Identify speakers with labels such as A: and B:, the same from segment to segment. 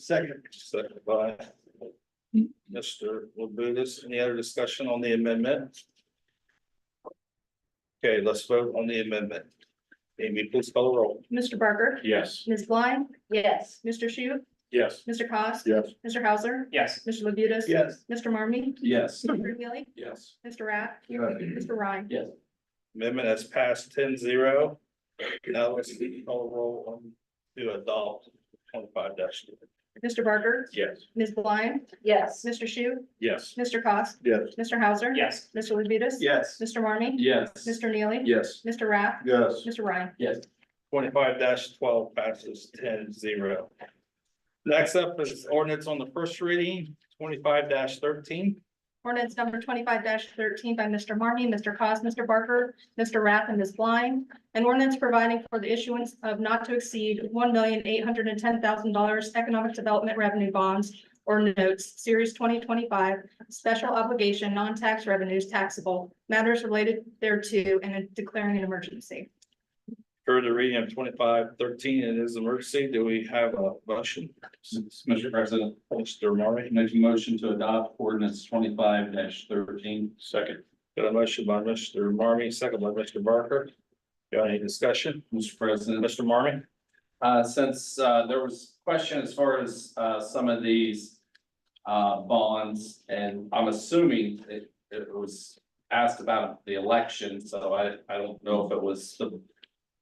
A: Second. Second by Mr. Labutus. Any other discussion on the amendment? Okay, let's vote on the amendment. Amy, please call the roll.
B: Mr. Barker,
C: Yes.
B: Ms. Blind,
D: yes,
B: Mr. Shu,
C: Yes.
B: Mr. Cost,
C: Yes.
B: Mr. Hauser,
C: Yes.
B: Mr. Labutus.
A: Yes.
B: Mr. Marmy,
C: Yes.
B: Mr. Wheelie,
C: Yes.
B: Mr. Rapp,
C: Yes.
B: Mr. Ryan.
A: Amendment has passed 10-0. Now let's call the roll on to adopt twenty-five dash.
B: Mr. Barker,
C: Yes.
B: Ms. Blind,
D: yes,
B: Mr. Shu,
C: Yes.
B: Mr. Cost,
C: Yes.
B: Mr. Hauser.
C: Yes.
B: Mr. Labutus.
A: Yes.
B: Mr. Marmy,
C: Yes.
B: Mr. Neely.
C: Yes.
B: Mr. Rapp,
C: Yes.
B: Mr. Ryan.
C: Yes.
A: Twenty-five twelve passes 10-0. Next up is ordinance on the first reading, twenty-five thirteen.
B: Ordinance number twenty-five thirteen by Mr. Marmy, Mr. Cos, Mr. Barker, Mr. Rath, and Ms. Blind. An ordinance providing for the issuance of not to exceed one million eight hundred and ten thousand dollars economic development revenue bonds or notes, series twenty twenty-five, special obligation, non-tax revenues taxable, matters related thereto, and declaring an emergency.
A: Heard the reading of twenty-five thirteen, it is emergency. Do we have a motion?
C: Mr. President,
A: Mr. Murray,
C: make a motion to adopt ordinance twenty-five thirteen. Second.
A: got a motion by Mr. Marmy, second by Mr. Barker. Got any discussion?
C: Mr. President.
A: Mr. Marmy?
C: Uh, since, uh, there was question as far as, uh, some of these, uh, bonds, and I'm assuming it, it was asked about the election, so I, I don't know if it was the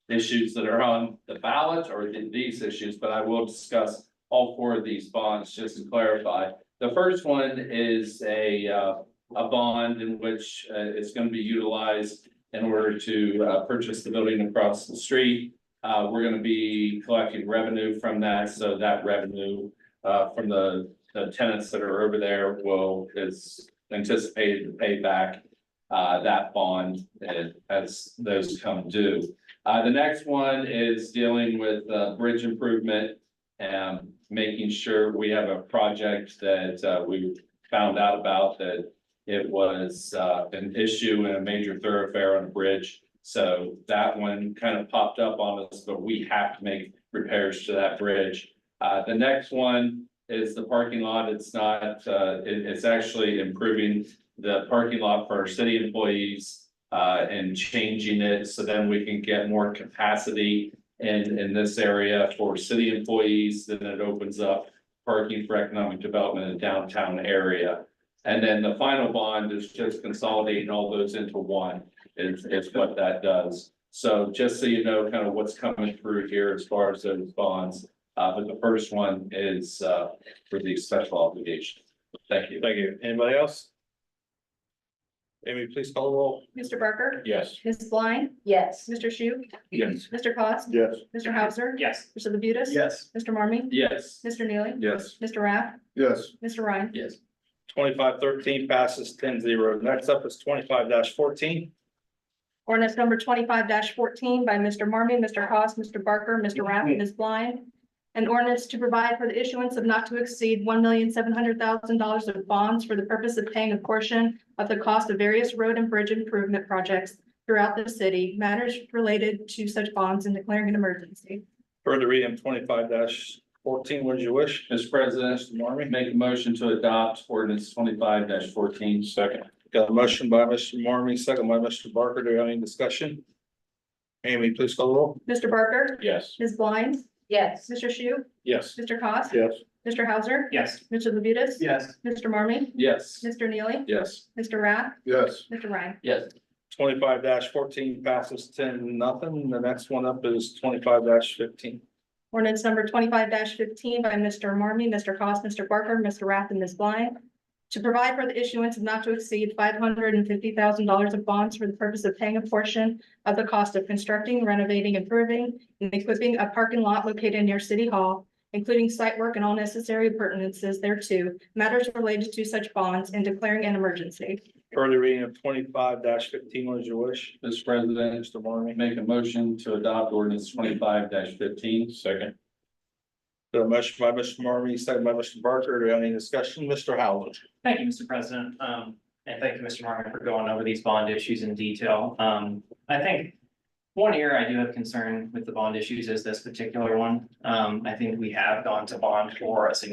C: issues that are on the ballot or the- these issues, but I will discuss all four of these bonds, just to clarify. The first one is a, uh, a bond in which, uh, it's gonna be utilized in order to, uh, purchase the building across the street. Uh, we're gonna be collecting revenue from that, so that revenue, uh, from the, the tenants that are over there will, is anticipated to pay back. Uh, that bond as- as those come due. Uh, the next one is dealing with, uh, bridge improvement. And making sure we have a project that, uh, we found out about that. It was, uh, an issue in a major thoroughfare on a bridge. So that one kind of popped up on us, but we have to make repairs to that bridge. Uh, the next one is the parking lot. It's not, uh, it- it's actually improving the parking lot for our city employees. Uh, and changing it so then we can get more capacity in, in this area for city employees. Then it opens up parking for economic development in downtown area. And then the final bond is just consolidating all those into one is, is what that does. So just so you know, kind of what's coming through here as far as those bonds. Uh, but the first one is, uh, for the special obligation. Thank you.
A: Thank you. Anybody else? Amy, please call the roll.
B: Mr. Barker,
C: Yes.
B: Ms. Blind,
D: yes,
B: Mr. Shu,
C: Yes.
B: Mr. Cos,
C: Yes.
B: Mr. Hauser,
C: Yes.
B: Mr. Labutus.
A: Yes.
B: Mr. Marmy,
C: Yes.
B: Mr. Neely.
C: Yes.
B: Mr. Rath,
C: Yes.
B: Mr. Ryan.
C: Yes.
A: Twenty-five thirteen passes 10-0. Next up is twenty-five fourteen.
B: Ordinance number twenty-five fourteen by Mr. Marmy, Mr. Haas, Mr. Barker, Mr. Rapp, and Ms. Blind. An ordinance to provide for the issuance of not to exceed one million seven hundred thousand dollars of bonds for the purpose of paying a portion of the cost of various road and bridge improvement projects throughout the city, matters related to such bonds and declaring an emergency.
A: Heard the reading of twenty-five fourteen. What did you wish?
C: Mr. President,
A: Mr. Marmy?
C: make a motion to adopt ordinance twenty-five fourteen. Second.
A: Got a motion by Mr. Marmy, second by Mr. Barker. Do we have any discussion? Amy, please call the roll.
B: Mr. Barker,
C: Yes.
B: Ms. Blind,
D: yes,
B: Mr. Shu,
C: Yes.
B: Mr. Cost,
C: Yes.
B: Mr. Hauser,
C: Yes.
B: Mr. Labutus.
C: Yes.
B: Mr. Marmy,
C: Yes.
B: Mr. Neely,
C: Yes.
B: Mr. Rath,
C: Yes.
B: Mr. Ryan.
C: Yes.
A: Twenty-five fourteen passes 10-0. nothing. The next one up is twenty-five fifteen.
B: Ordinance number twenty-five fifteen by Mr. Marmy, Mr. Cost, Mr. Barker, Mr. Rath, and Ms. Blind. To provide for the issuance of not to exceed five hundred and fifty thousand dollars of bonds for the purpose of paying a portion of the cost of constructing, renovating, improving, and equipping a parking lot located near City Hall, including site work and all necessary appurtenances thereto, matters related to such bonds, and declaring an emergency.
A: Heard the reading of twenty-five fifteen. What did you wish?
C: Mr. President,
A: Mr. Marmy?
C: make a motion to adopt ordinance twenty-five fifteen. Second.
A: Got a motion by Mr. Marmy, second by Mr. Barker. Do we have any discussion? Mr. Howland?
E: Thank you, Mr. President, um, and thank you, Mr. Martin, for going over these bond issues in detail. Um, I think one area I do have concern with the bond issues is this particular one. Um, I think we have gone to bond for a significant